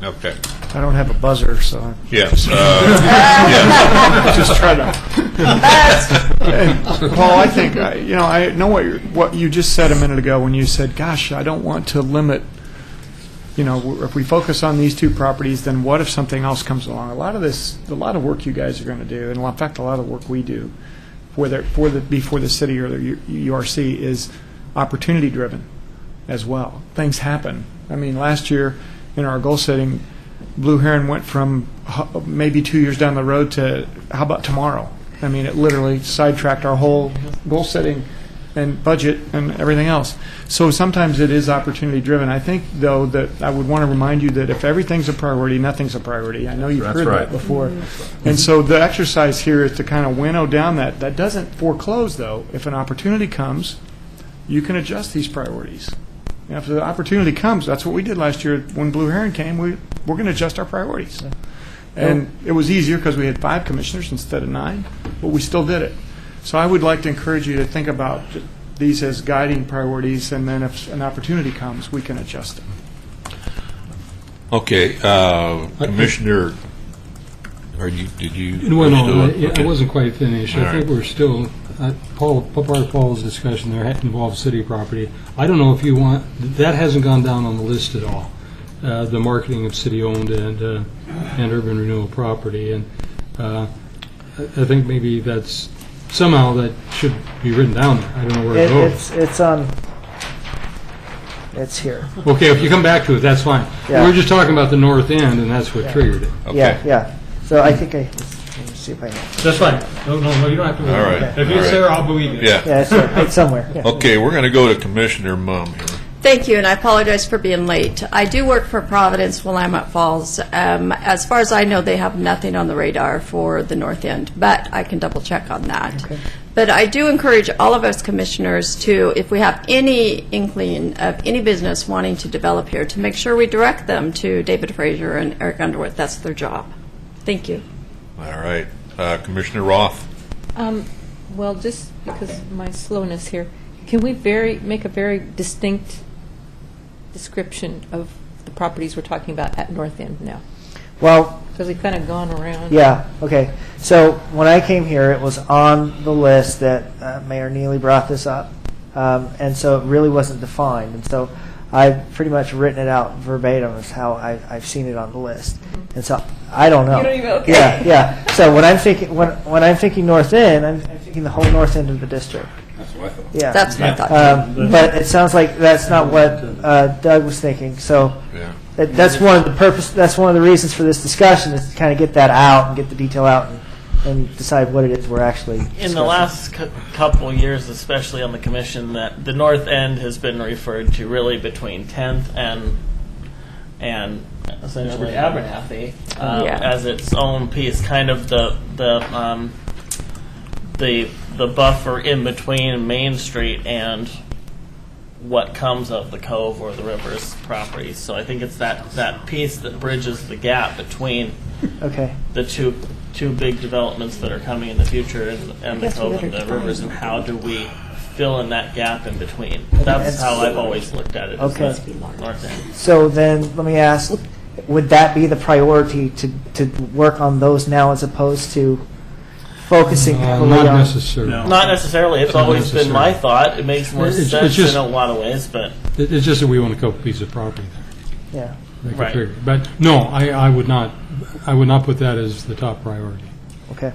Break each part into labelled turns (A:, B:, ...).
A: Okay,
B: I don't have a buzzer, so I'm
A: yes. uh,
B: just trying to. Paul, I think I- you know I know what you're, what you just said a minute ago when you said, "Gosh, I don't want to limit." You know, if we focus on these two properties, then what if something else comes along? A lot of this, a lot of work you guys are going to do, and in fact, a lot of work we do, for the for the before the city or the U- URC is opportunity driven as well. Things happen. I mean, last year in our goal setting, Blue Heron went from ho- maybe two years down the road to how about tomorrow? I mean, it literally sidetracked our whole goal setting and budget and everything else. So sometimes it is opportunity driven. I think, though, that I would want to remind you that if everything's a priority, nothing's a priority. I know you've heard that
C: right.
B: before. And so the exercise here is to kind of winnow down that. That doesn't foreclose, though. If an opportunity comes, you can adjust these priorities. And if the opportunity comes, that's what we did last year when Blue Heron came. We we're going to adjust our priorities, and it was easier because we had five commissioners instead of nine, but we still did it. So I would like to encourage you to think about these as guiding priorities, and then if an opportunity comes, we can adjust them.
A: Okay, uh, Commissioner, are you, did you? are
D: No,
A: you
D: no, I-
A: doing-
D: yeah, I
A: okay.
D: wasn't quite finished.
A: All
D: I think
A: right.
D: we're still, uh, Paul, part of Paul's discussion there had- involved city property. I don't know if you want, that hasn't gone down on the list at all, uh, the marketing of city-owned and, uh, and urban renewal property. And uh, I I think maybe that's, somehow that should be written down there. I don't know where it
E: It,
D: goes.
E: it's it's on. It's here.
D: Okay, if you come back to it, that's fine. We
E: Yeah.
D: We're just talking about the north end, and that's what triggered it.
E: Yeah,
A: Okay.
E: yeah. So I think I let me see if I
D: That's fine. No, no, no, you don't have to.
A: All right, all right.
D: I'll believe you.
A: Yeah,
E: yeah, it's, there. it's somewhere. Yeah.
A: okay, we're going to go to Commissioner Mum here.
F: Thank you, and I apologize for being late. I do work for Providence Willamette Falls. Um, As far as I know, they have nothing on the radar for the north end, but I can double-check on that. But I do encourage all of us commissioners to, if we have any inkling of any business wanting to develop here, to make sure we direct them to David Fraser and Eric Underwood. That's their job. Thank you.
A: All right, uh, Commissioner Roth,
G: Um, well, just because of my slowness here, can we very, make a very distinct description of the properties we're talking about at North End now?
E: Well,
G: Because we've kind of gone around.
E: yeah, okay. So when I came here, it was on the list that uh, Mayor Neely brought this up, um, and so it really wasn't defined. And so I've pretty much written it out verbatim as how I, I've seen it on the list. And so I don't know.
G: You don't even- okay.
E: Yeah, yeah. So when I'm thinking when when I'm thinking North End, I'm, I'm thinking the whole North End of the district. That's what I thought. Yeah.
F: That's what I thought.
E: Um, But it sounds like that's not what uh, Doug was thinking, so
A: yeah.
E: that- that's one of the purpose, that's one of the reasons for this discussion, is to kind of get that out and get the detail out and- and decide what it is we're actually
H: in the
E: discussing.
H: last cou- couple years, especially on the commission, that the north end has been referred to really between 10th and and essentially Abernathy um,
F: Yeah.
H: as its own piece, kind of the the um, the the buffer in between Main Street and what comes of the cove or the river's property. So I think it's that that piece that bridges the gap between
E: Okay,
H: the two two big developments that are coming in the future and, and the
G: guess we
H: cove and the
G: better
H: rivers and how do we fill in that gap in between that's how i've always looked at it is
E: Okay.
H: the north end.
E: so then, let me ask, would that be the priority to, to work on those now as opposed to focusing
D: Uh,
E: heavily on?
D: Not necessarily.
H: not necessarily it's
D: Not
H: always been my
D: necessarily.
H: thought it makes more
D: It's- it's
H: sense
D: just-
H: in a lot of ways but
D: It- It's just that we own a couple pieces of property
E: Yeah,
D: there. that could
H: Right.
D: trigger it. But no, I, I would not, I would not put that as the top priority.
E: okay.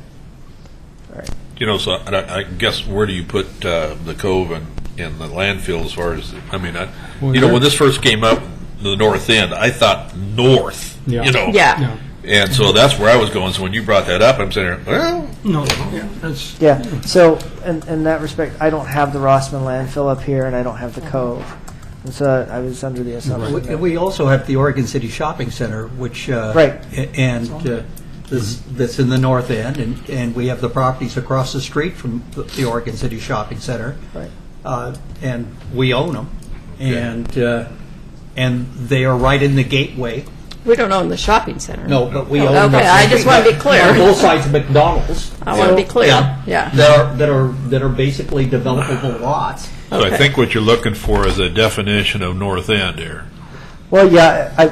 A: You know, so I, I guess where do you put uh, the cove and, and the landfill as far as, I mean, I,
D: Well,
A: you know,
D: there-
A: when this first came up, the north end, I thought north,
D: Yeah.
A: you know.
F: Yeah.
D: Yeah.
A: And so that's where I was going, so when you brought that up, I'm sitting there, well,
D: No, that's,
E: Yeah, so in, in that respect, I don't have the Rossman landfill up here, and I don't have the Cove, and so I was under the assumption.
I: We-
E: that-
I: We also have the Oregon City Shopping Center, which. uh,
E: Right.
I: a- And uh, this- that's in the north end, and and we have the properties across the street from the- the Oregon City Shopping Center.
E: Right.
I: Right. And we own them, and, uh, and they are right in the gateway.
F: We don't own the shopping center.
I: No, but we
F: Oh,
I: own them.
F: okay, I just wanna be clear.
I: Both sides of McDonald's.
F: I want to be clear. Yeah.
I: That are, that are, that are basically developable lots.
A: so I think what you're looking for is a definition of north end here.
E: Well, yeah, I,